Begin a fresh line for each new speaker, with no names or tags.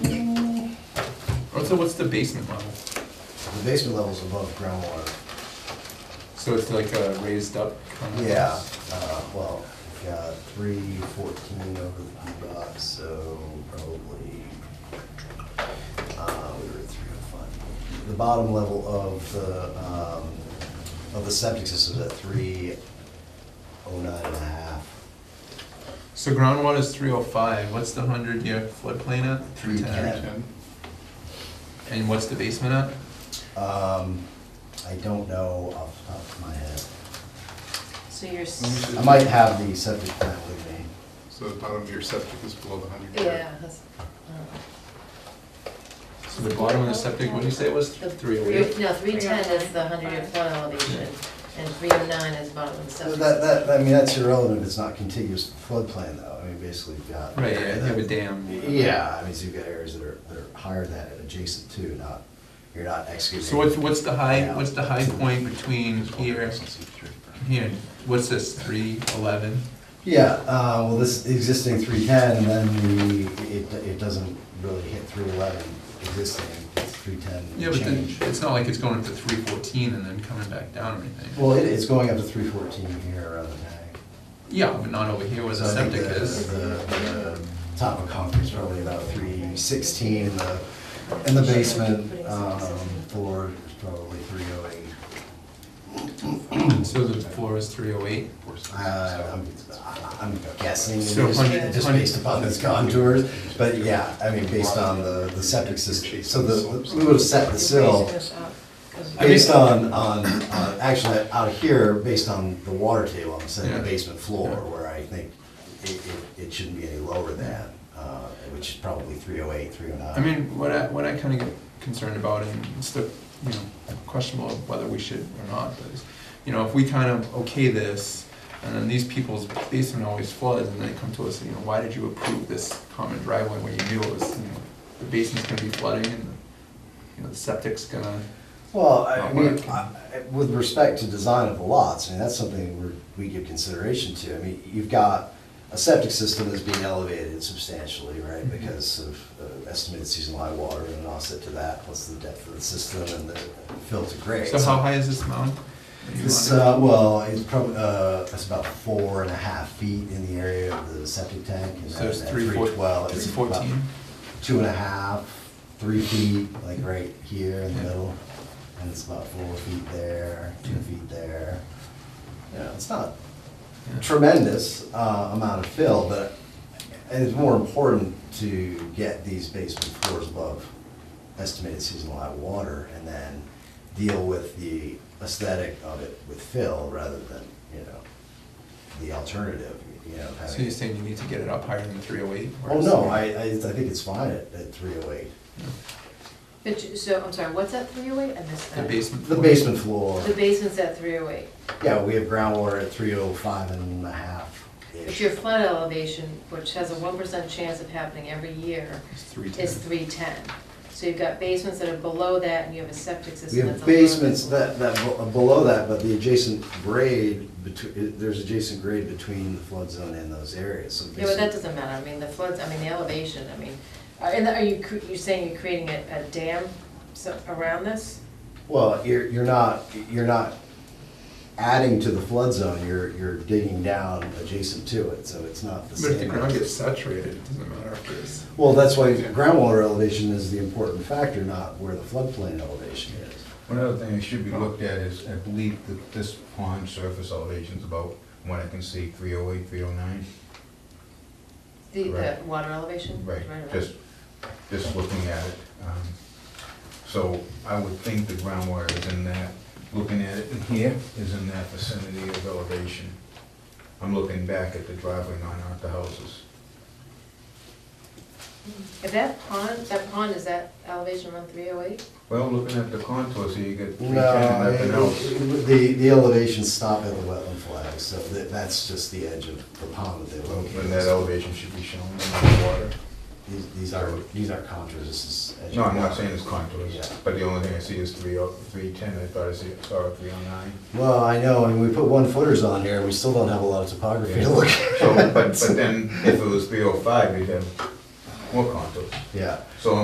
What's the, what's the basement level?
The basement level's above groundwater.
So it's like a raised up kind of?
Yeah, uh, well, we've got three fourteen over the P dot, so probably, uh, we were at three oh five. The bottom level of the, um, of the septic system is at three oh nine and a half.
So groundwater is three oh five, what's the hundred year floodplain at? Three ten. And what's the basement at?
Um, I don't know off the top of my head.
So you're, s-
I might have the septic plan with me.
So the bottom of your septic is below the hundred.
yeah, that's, uh,
So the bottom of the septic, what did you say it was,
the.
three oh
three-
eight?
No, three oh ten is the hundred year flood elevation, and three oh nine is bottom of the
So
septic.
That, that, I mean, that's irrelevant if it's not contiguous to the floodplain though, I mean, basically you've got.
Right, yeah, you have a dam.
Yeah, I mean, so you've got areas that are, that are higher than that and adjacent to, not, you're not excavating.
So what's, what's the high, what's the high point between here and here? What's this, three eleven?
Yeah, uh, well, this existing three ten, and then the, it, it doesn't really hit three eleven existing, it's three ten
Yeah, but then,
change.
it's not like it's going up to three fourteen and then coming back down or anything.
Well, it, it's going up to three fourteen here rather than ag.
Yeah, but not over here where the
So I think
septic
the-
is.
The, the top of concrete's probably about three sixteen, and the, and the basement, um, floor is probably three oh eight.
So the floor is three oh eight?
Uh, I'm, I'm guessing,
So
just,
hundred-
just
hundred-
based upon those contours, but yeah, I mean, based on the, the septic system, so the, we would have set the sill
I mean-
based on, on, on- actually, out of here, based on the water table, I'm saying the
Yeah.
basement floor,
Yeah.
where I think it, it, it shouldn't be any lower than, uh, which is probably three oh eight, three oh nine.
I mean, what I, what I kind of get concerned about, and it's the, you know, questionable of whether we should or not, but is, you know, if we kind of okay this, and then these people's basement always floods, and they come to us, and, you know, why did you approve this common driveway when you knew it was, you know, the basement's gonna be flooding, and, the- you know, the septic's gonna,
Well, I
Not
mean,
working.
I- I- with respect to design of the lots, I mean, that's something we're, we give consideration to. I mean, you've got a septic system that's being elevated substantially, right?
Mhm.
Because of uh, estimated seasonal high water and an offset to that, plus the depth of the system and the filter grade.
so how high is this mound?
It's, uh, well, it's probably, uh, it's about four and a half feet in the area of the septic tank. and
So it's
that- that
three four-
312, it's
three
about
fourteen?
Two and a half, three feet, like right here in the
Yeah.
middle, and it's about four feet there, two feet there. You know, it's not
Yeah.
tremendous, uh, amount of fill, but it's more important to get these basement floors above estimated seasonal high water and then deal with the aesthetic of it with fill rather than, you know, the alternative, you know, having.
So you're saying you need to get it up higher than three oh eight?
Oh, no, I, I, I think it's fine at, at three oh eight.
But, you- so, I'm sorry, what's that three oh eight? I missed
The
that.
basement?
The
floor?
basement floor,
The basement's at three oh eight,
yeah, we have groundwater at three oh five and a half.
but your flood elevation, which has a one percent chance of happening every year,
It's three ten.
is three ten. So you've got basements that are below that, and you have a septic
We
system that's.
have
a little bit
basements that, that, be- below that, but the adjacent grade, between, there's adjacent grade between the flood zone and those areas, so.
Yeah, but that
basically-
doesn't matter, I mean, the floods, I mean, the elevation, I mean, are, and are you, cre- you're saying you're creating a, a dam so, around this?
Well, you're, you're not, you're not adding to the flood zone, you're, you're digging down adjacent to it, so it's not the
But if the
same.
ground gets saturated, it doesn't matter if it's.
Well, that's why groundwater elevation is the important factor, not where the floodplain elevation is.
One other thing that should be looked at is, I believe that this pond surface elevation is about, what I can see, 308, 309?
The, the
Right.
water elevation?
Right, just, just looking at it. um, So I would think the groundwater is in that, looking at it in here, is in that vicinity of elevation. I'm looking back at the driveway, not at the houses.
If that pond, that pond, is that elevation around three oh eight?
Well, looking at the contours here, you got 310
No,
and
I-
nothing else.
the, the elevations stop at the wetland flag, so that, that's just the edge of the pond that they're
When that
located.
elevation should be shown in the water.
These- These are, these are contours, this is. edge
No,
of
I'm not
water.
saying it's contours,
Yeah.
but the only thing I see is three oh, three ten, I thought I see, saw a three oh nine.
Well, I know, and we put one footers on here, and we still don't have a lot of topography to look at.
So, but, but then if it was three oh five, you'd have more contours.
Yeah,